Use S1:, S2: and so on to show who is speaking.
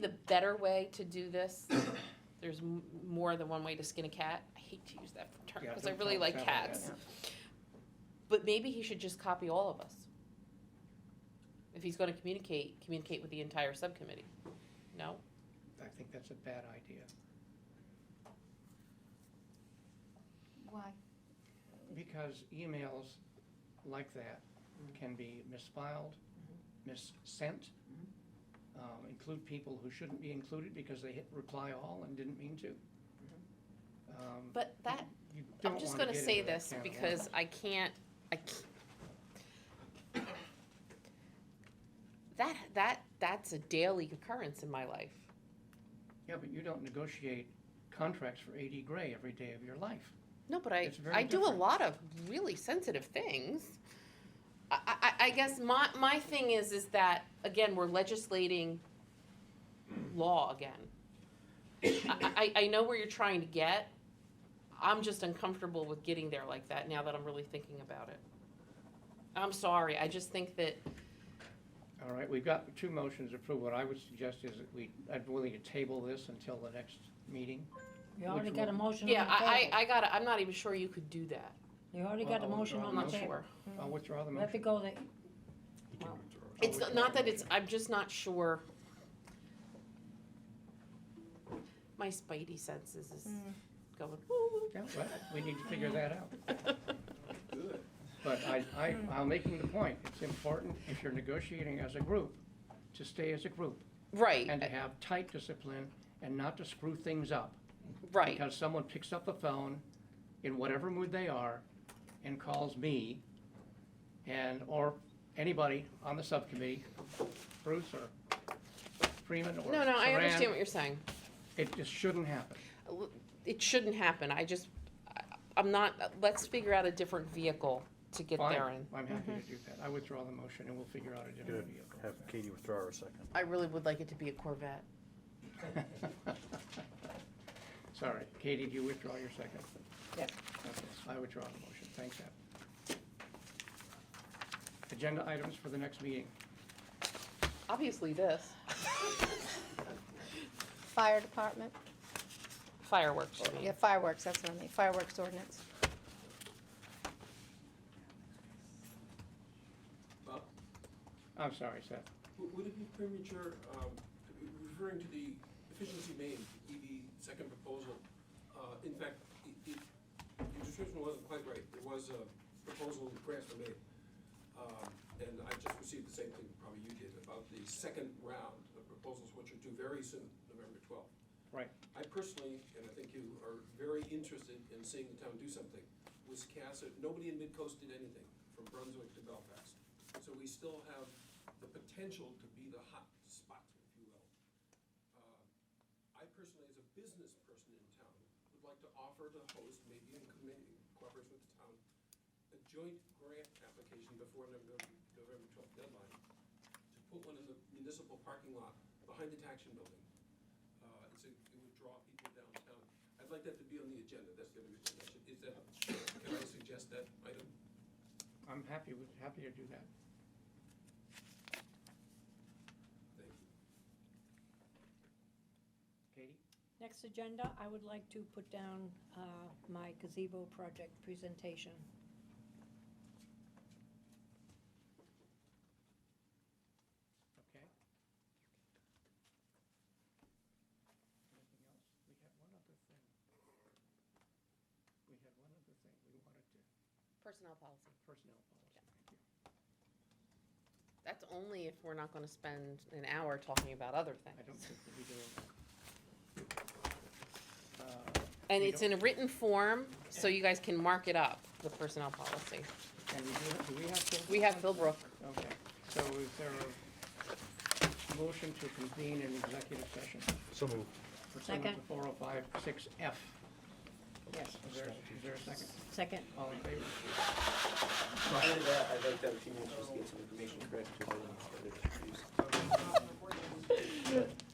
S1: the better way to do this, there's m- more than one way to skin a cat. I hate to use that term
S2: Yeah,
S1: because I
S2: don't
S1: really
S2: tell-
S1: like
S2: tell me
S1: cats. But maybe he should just copy all of us. If he's gonna communicate, communicate with the entire subcommittee. No?
S2: I think that's a bad idea,
S3: Why?
S2: because emails like that can be misfiled, missent, um, include people who shouldn't be included because they hit reply all and didn't mean to. Um,
S1: But that,
S2: you
S1: I'm
S2: don't
S1: just
S2: wanna
S1: gonna
S2: get
S1: say
S2: into that
S1: this
S2: can of
S1: because I can't, I can't. That, that, that's a daily occurrence in my life.
S2: worms. Yeah, but you don't negotiate contracts for AD Gray every day of your life.
S1: No, but I,
S2: It's very
S1: I do a
S2: different.
S1: lot of really sensitive things. I, I, I guess my, my thing is, is that, again, we're legislating law again. I, I, I know where you're trying to get. I'm just uncomfortable with getting there like that now that I'm really thinking about it. I'm sorry, I just think that,
S2: All right, we've got two motions approved. What I would suggest is that we, I'm willing to table this until the next meeting.
S4: You already
S2: Which
S4: got a
S2: one?
S4: motion on the
S1: yeah,
S4: table.
S1: I, I, I gotta, I'm not even sure you could do that.
S4: You already got a
S2: Well, I'll
S4: motion
S2: withdraw
S1: I'm
S4: on the
S1: not
S2: the
S4: table.
S1: sure.
S2: I'll withdraw the
S4: Let
S2: motion.
S4: it go there.
S1: It's not- not that it's, I'm just not sure. My spidey senses is going, woo.
S2: Yeah, well, we need to figure that out.
S5: Good.
S2: But I, I,
S1: Hmm.
S2: I'm making the point, it's important if you're negotiating as a group, to stay as a group and to
S1: Right,
S2: have tight discipline and not to screw things up.
S1: right.
S2: Because someone picks up the phone in whatever mood they are and calls me and, or anybody on the subcommittee, Bruce or Freeman or
S1: No, no, I
S2: Saran,
S1: understand what you're saying.
S2: It just shouldn't happen.
S1: It shouldn't happen. I just, I- I'm not, let's figure out a different vehicle to get
S2: Fine,
S1: there Mm-hmm. in.
S2: I'm happy to do that. I withdraw the motion and we'll figure out a different
S5: Good.
S2: vehicle.
S5: Have Katie withdraw her second.
S1: I really would like it to be a Corvette.
S2: Sorry, Katie, do you withdraw your second?
S4: Yes.
S2: Okay, I withdraw the motion, thanks, Ab. Agenda items for the next meeting.
S1: Obviously this,
S3: Fire department,
S1: fireworks, you mean.
S3: yeah, fireworks, that's what I mean, fireworks ordinance.
S6: Bob,
S2: I'm sorry, Seth.
S6: w- would it be premature, um, referring to the efficiency main, EV second proposal? uh, In fact, i- i- your description wasn't quite right. There was a proposal grants were made. um, And I just received the same thing probably you did about the second round of proposals, which are due very soon, November twelfth.
S2: Right.
S6: I personally, and I think you are very interested in seeing the town do something. Wiscasset, nobody in Midcoast did anything, from Brunswick to Belfast. So we still have the potential to be the hot spot, if you will. Uh, I personally, as a business person in town, would like to offer to host, maybe in committee, cooperation with the town, a joint grant application before November, November twelfth deadline, to put one in the municipal parking lot behind the Taction Building. Uh, it's a, it would draw people downtown. I'd like that to be on the agenda, that's the only suggestion. Is that, can I suggest that item?
S2: I'm happy, with happy to do that.
S6: Thank you.
S2: Katie?
S4: Next agenda, I would like to put down uh, my gazebo project presentation.
S2: Okay. Anything else? We had one other thing. We had one other thing we wanted to,
S1: Personnel policy.
S2: personnel policy, thank you.
S1: That's only if we're not gonna spend an hour talking about other
S2: I don't
S1: things.
S2: think we'll be doing that. Uh,
S1: And
S2: we
S1: it's in a written form, so you guys can mark it up, the personnel policy.
S2: And we do, do we have to?
S1: We have Philbrook.
S2: Okay, so is there a motion to convene an executive session?
S5: So moved.
S2: Pursuant to
S4: Second.
S2: four oh five six F.
S4: Yes.
S2: Is there, is there a second?
S4: Second.
S2: All in favor?
S7: Other than that, I'd like to have a few minutes just to get some information correct. for the- for the-